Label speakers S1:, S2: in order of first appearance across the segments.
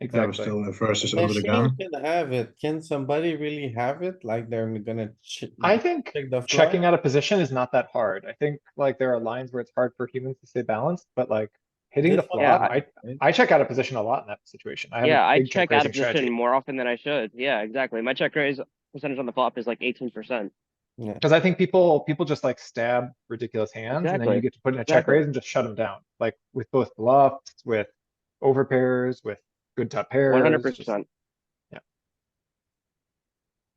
S1: That was
S2: Exactly.
S1: still the versus over the
S3: Machine
S1: gun.
S3: can have it. Can somebody really have it? Like they're gonna. ch-
S2: I think
S3: check the
S2: checking out
S3: flop?
S2: a position is not that hard. I think like there are lines where it's hard for humans to stay balanced, but like hitting the
S3: This one- Yeah,
S2: flop, I, I check out of position a lot in that situation. I have a
S4: Yeah, I
S2: big
S4: check out of
S2: raising strategy.
S4: position more often than I should. Yeah, exactly. My check raise percentage on the flop is like eighteen percent.
S3: Yeah,
S2: Cause I think people, people just like stab ridiculous hands and then you
S4: Exactly.
S2: get to put in a check
S4: Exactly.
S2: raise and just shut them down, like with both bluffs, with over pairs, with good top pairs.
S4: One hundred
S2: just-
S4: percent.
S2: Yeah.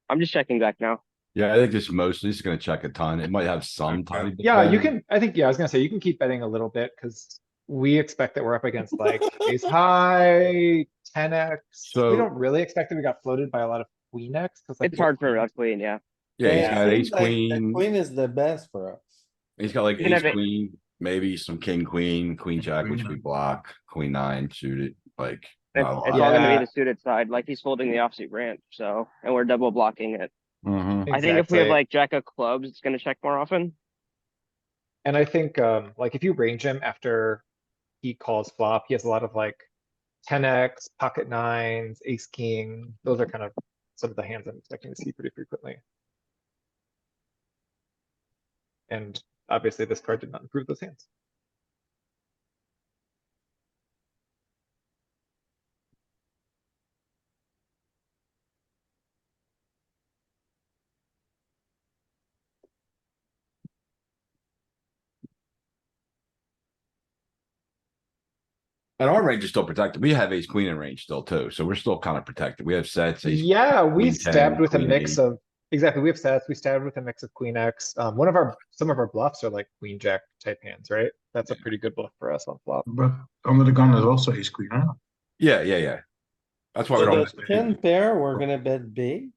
S4: I'm just checking back now.
S5: Yeah, I think it's mostly just gonna check a ton. It might have some tiny. bit
S2: Yeah, you
S5: better.
S2: can, I think, yeah, I was gonna say, you can keep betting a little bit, cause we expect that we're up against like ace high, ten X. We
S5: So-
S2: don't really expect that we got floated by a lot of queen X, cause like.
S4: It's hard for a queen, yeah.
S5: Yeah, he's
S3: it
S5: got
S3: seems
S5: ace,
S3: like the
S5: queen,
S3: Queen is the best for us.
S5: he's got like
S4: You can
S5: ace,
S4: have it-
S5: queen, maybe some king, queen, queen, jack, which
S1: Queen
S5: we
S1: nine.
S5: block, queen nine, shoot it, like.
S4: It's, it's
S5: not
S4: all
S5: a lot.
S4: gonna
S2: Oh, Yeah.
S4: be the suited side, like he's folding the offsuit branch, so, and we're double blocking it.
S1: Mm-hmm.
S5: Mhm.
S4: I think if we have
S2: Exactly.
S4: like jack of clubs, it's gonna check more often.
S2: And I think, um, like if you range him after he calls flop, he has a lot of like ten X, pocket nines, ace, king. Those are kind of some of the hands I'm expecting to see pretty frequently. And obviously this card did not improve those hands.
S5: And our range is still protected. We have ace, queen in range still too, so we're still kind of protected. We have sets, ace,
S2: Yeah, we
S5: queen
S2: stabbed
S5: ten,
S2: with a
S5: queen
S2: mix
S5: eight.
S2: of, exactly, we have sets, we stabbed with a mix of queen X. Um, one of our, some of our bluffs are like queen jack type hands, right? That's a pretty good bluff for us on flop.
S1: But under the gun is also ace queen, huh?
S5: yeah, yeah, yeah. That's why we
S3: So
S5: don't.
S3: the ten pair, we're gonna bet big.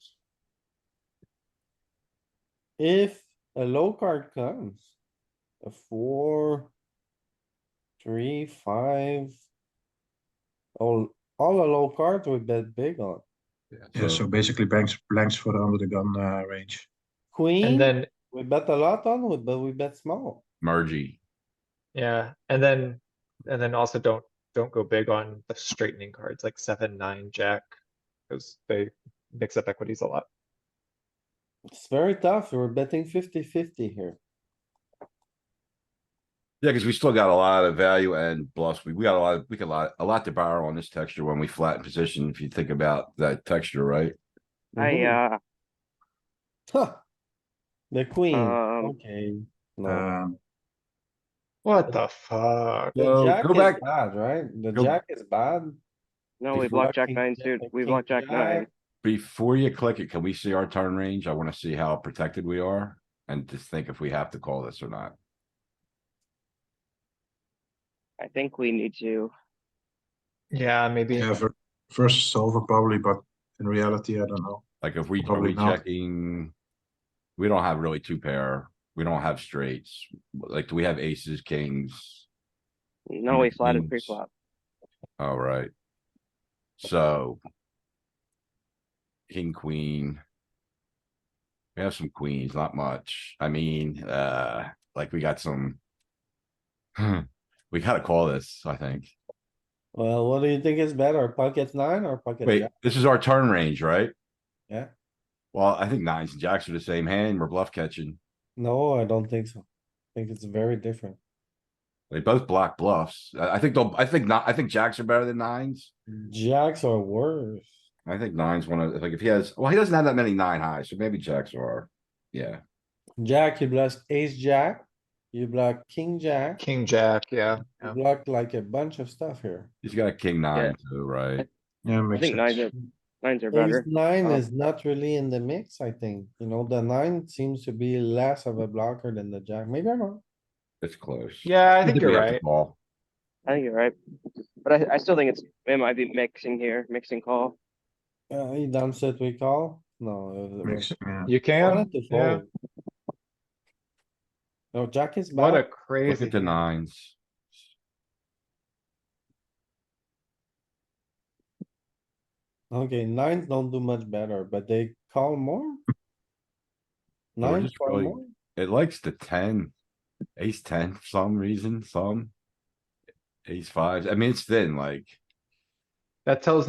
S3: If a low card comes, a four, three, five. All, all a low card we bet big on.
S1: Yeah, so basically blanks, blanks for the under the gun, uh, range.
S2: And
S3: Queen,
S2: then
S3: we bet a lot on, but we bet small.
S5: Mergey.
S2: Yeah, and then, and then also don't, don't go big on the straightening cards like seven, nine, jack. Cause they mix up equities a lot.
S3: It's very tough. We're betting 50-50 here.
S5: Yeah, because we still got a lot of value and bluffs. We, we got a lot, we got a lot, a lot to borrow on this texture when we flatten position, if you think about that texture, right?
S4: I, uh,
S3: Huh. The queen,
S2: Hmm.
S4: Um,
S3: okay. No,
S1: Um,
S2: What the fuck?
S3: the
S5: so
S3: jack
S5: go
S3: is
S5: back-
S3: bad, right? The
S5: go-
S3: jack is bad.
S4: no, we
S5: He's
S4: blocked jack
S3: blocking
S4: nine
S3: jack,
S4: suit,
S3: like
S4: we
S3: king
S4: blocked jack nine.
S3: jack.
S5: Before you click it, can we see our turn range? I want to see how protected we are and just think if we have to call this or not.
S4: I think we need to,
S2: Yeah, maybe.
S1: yeah, ver- versus solver probably, but in reality, I don't know.
S5: Like if we, are
S1: Probably
S5: we
S1: not.
S5: checking? We don't have really two pair. We don't have straights. Like, do we have aces, kings?
S4: no, we
S5: Mm,
S4: flatted
S5: means-
S4: pre-flop.
S5: All right. So. King, queen. We have some queens, not much. I mean, uh, like we got some. Hmm, We gotta call this, I think.
S3: Well, what do you think is better, pocket nine or pocket
S5: Wait,
S3: jack?
S5: this is our turn range, right?
S3: Yeah.
S5: Well, I think nines and jacks are the same hand. We're bluff catching.
S3: No, I don't think so. I think it's very different.
S5: They both block bluffs. I, I think they'll, I think not, I think jacks are better than nines.
S3: Jacks are worse.
S5: I think nines one of, like if he has, well, he doesn't have that many nine highs, so maybe jacks are, yeah.
S3: Jack, you block ace jack, you block king jack,
S2: King, jack, yeah.
S3: you
S2: yeah.
S3: block like a bunch of stuff here.
S5: He's got a king nine too, right?
S1: Yeah,
S4: I
S1: makes
S4: think nines
S1: sense.
S4: are, nines are
S3: Ace
S4: better.
S3: nine
S4: Oh.
S3: is not really in the mix, I think. You know, the nine seems to be less of a blocker than the jack. Maybe I'm wrong.
S5: It's close.
S2: Yeah, I think
S5: we
S2: you're
S5: have to
S2: right.
S5: call.
S4: I think you're right. But I, I still think it's, it might be mixing here, mixing call.
S3: Uh, he dumps it, we call? No. uh, it was- it was-
S1: Makes, yeah.
S2: You can,
S3: wanted to
S2: yeah.
S3: fold. No, jack is
S2: What a
S3: bad.
S5: Look
S2: crazy.
S5: at the nines.
S3: Okay, nines don't do much better, but they call more?
S5: We're
S3: Nines
S5: just
S3: call
S5: really-
S3: more?
S5: It likes the ten, ace ten for some reason, some. Ace fives. I mean, it's thin, like.
S2: That tells